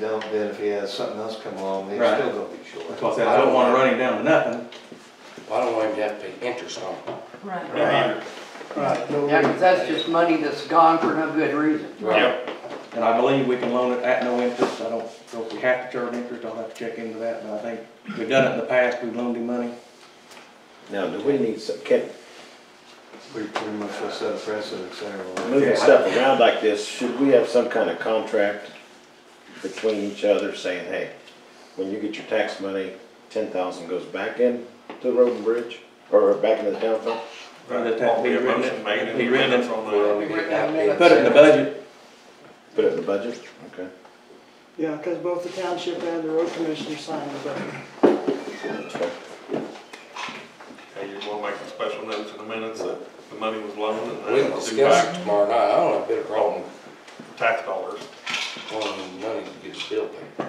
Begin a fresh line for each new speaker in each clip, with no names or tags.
Don't, then if he has something else come along, he's
Right.
still gonna be short.
That's why I said, I don't wanna run him down to nothing.
I don't want him to have to pay interest on it.
Right.
Right.
Right, no
Yeah, 'cause
reason.
that's just money that's gone for no good reason.
Right.
And I believe we can loan it at no interest. I don't know if we have to charge interest. I'll have to check into that, but I think we've done it in the past. We've loaned him money.
Now, do we need some, can,
We pretty much will set a precedent there.
moving stuff around like this, should we have some kind of contract between each other saying, hey, when you get your tax money, ten thousand goes back in to the road and bridge, or back into the town fund?
Or that that be written in- be written in-
uh,
Well, we didn't have to pay
Put it in the budget.
Put it in the budget, okay?
Yeah, because both the township and the road commissioner signed the budget.
Hey, you wanna make a special notes in the minutes that the money was loaned and
We can
that it's due
discuss
back
it tomorrow night, I don't have a bit of problem
to tax dollars.
wanting money to get his bill paid.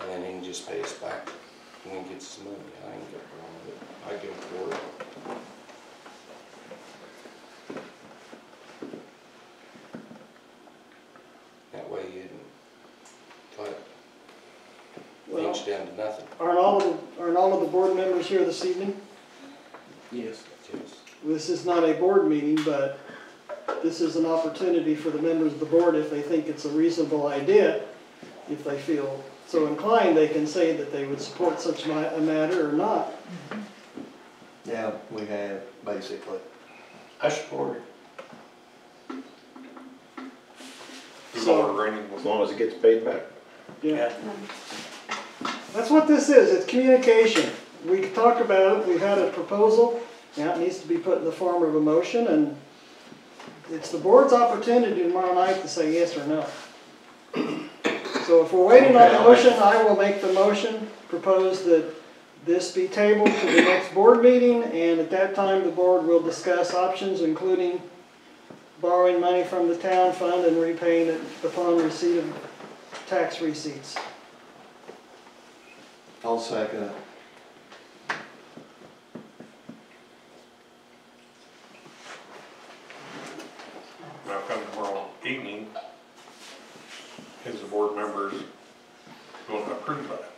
And then he can just pay us back when he gets his money, I ain't got a problem with it, I give it for it. That way you didn't, like,
Well,
inch down to nothing,
aren't all of, the- aren't all of the board members here this evening?
Yes.
just.
This is not a board meeting, but this is an opportunity for the members of the board, if they think it's a reasonable idea, if they feel so inclined, they can say that they would support such ma- a matter or not.
Yeah, we have, basically.
I support it.
Two
So-
dollar renting was
As long as it gets paid back.
Yeah. That's what this is, it's communication. We talked about it, we had a proposal, now it needs to be put in the form of a motion, and it's the board's opportunity tomorrow night to say yes or no. So if we're waiting on the motion, I will make the motion, propose that this be tabled to the next board meeting, and at that time, the board will discuss options, including borrowing money from the town fund and repaying it upon receipt of tax receipts.
I'll second it.
Now, come tomorrow evening, is the board members gonna approve that?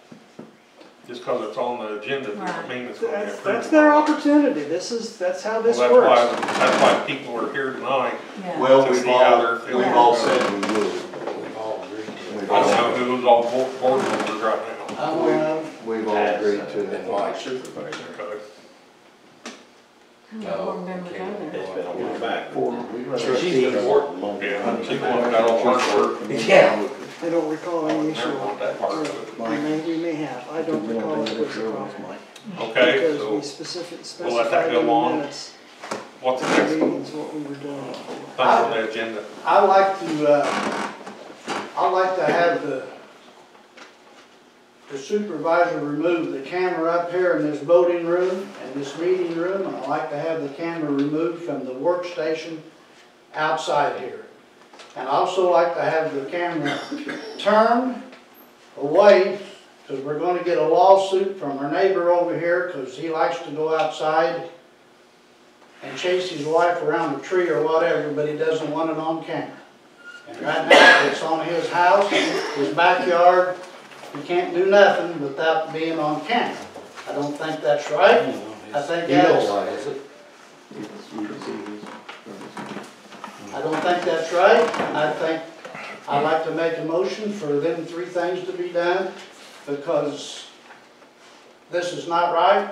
Just because it's on the agenda doesn't
Right.
mean it's gonna be
That's,
approved.
that's their opportunity, this is, that's how
Well,
this
that's why,
works.
that's why people are here tonight.
Yeah.
Well,
To
we've
see how
all,
they're feeling.
we've all said we would.
We've all agreed to
We've
I
all,
don't know who's all board, board members right now.
Uh,
Um,
we've all agreed to
it. Then
it.
why?
supervisor.
Okay.
Who the
No,
board members
okay,
are there?
It's been a while back.
She's been
Yeah, she's the one that got all the hard work.
Yeah.
I don't recall any issue.
Never want that part of it.
We may, we may have, I don't recall if it was a problem.
Okay,
Because
so
we specific,
we'll let that
specified
go
in the
on.
minutes,
what's the
the
next thing
meetings, what we were doing.
on
Oh.
the agenda?
I like to, uh, I like to have the, the supervisor remove the camera up here in this voting room and this meeting room, and I like to have the camera removed from the workstation outside here. And I also like to have the camera turned away, because we're gonna get a lawsuit from our neighbor over here, because he likes to go outside and chase his wife around a tree or whatever, but he doesn't want it on camera. And right now, it's on his house, his backyard, he can't do nothing without being on camera. I don't think that's right, I think
You don't
that's,
like it.
Is it?
I don't think that's right, I think, I'd like to make a motion for them three things to be done, because this is not right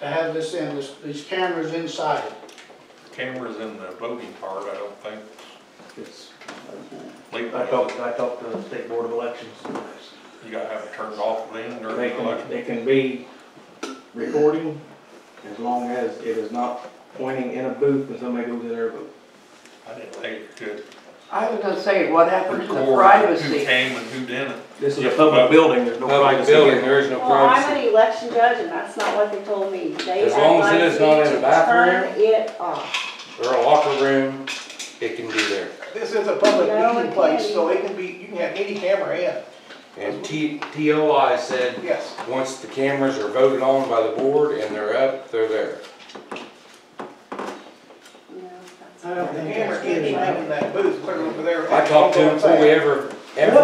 to have this in, this, these cameras inside.
Cameras in the voting part, I don't think. Leave
I
that.
talked, I talked to the state board of elections.
You gotta have it turned off then during
They
the
can,
election.
they can be recording as long as it is not pointing in a booth and somebody goes in there and votes.
I didn't think it could
I was gonna say, what happened to the
record who
privacy?
came and who didn't.
This is a public building, there's no
Public
privacy.
building,
here.
there is no
Well, I'm
privacy.
an election judge, and that's not what they told me. They
As long as it
advised
is not
me
in a
to
bathroom.
Turn it off.
Or a locker room, it can be there.
This is a public
No, it
meeting place,
can't.
so it can be, you can have any camera in.
And T, TOI said,
Yes.
once the cameras are voted on by the board and they're up, they're there.
No, that's-
I don't think that's good, in that booth, clear over there.
I talked to him before we ever Every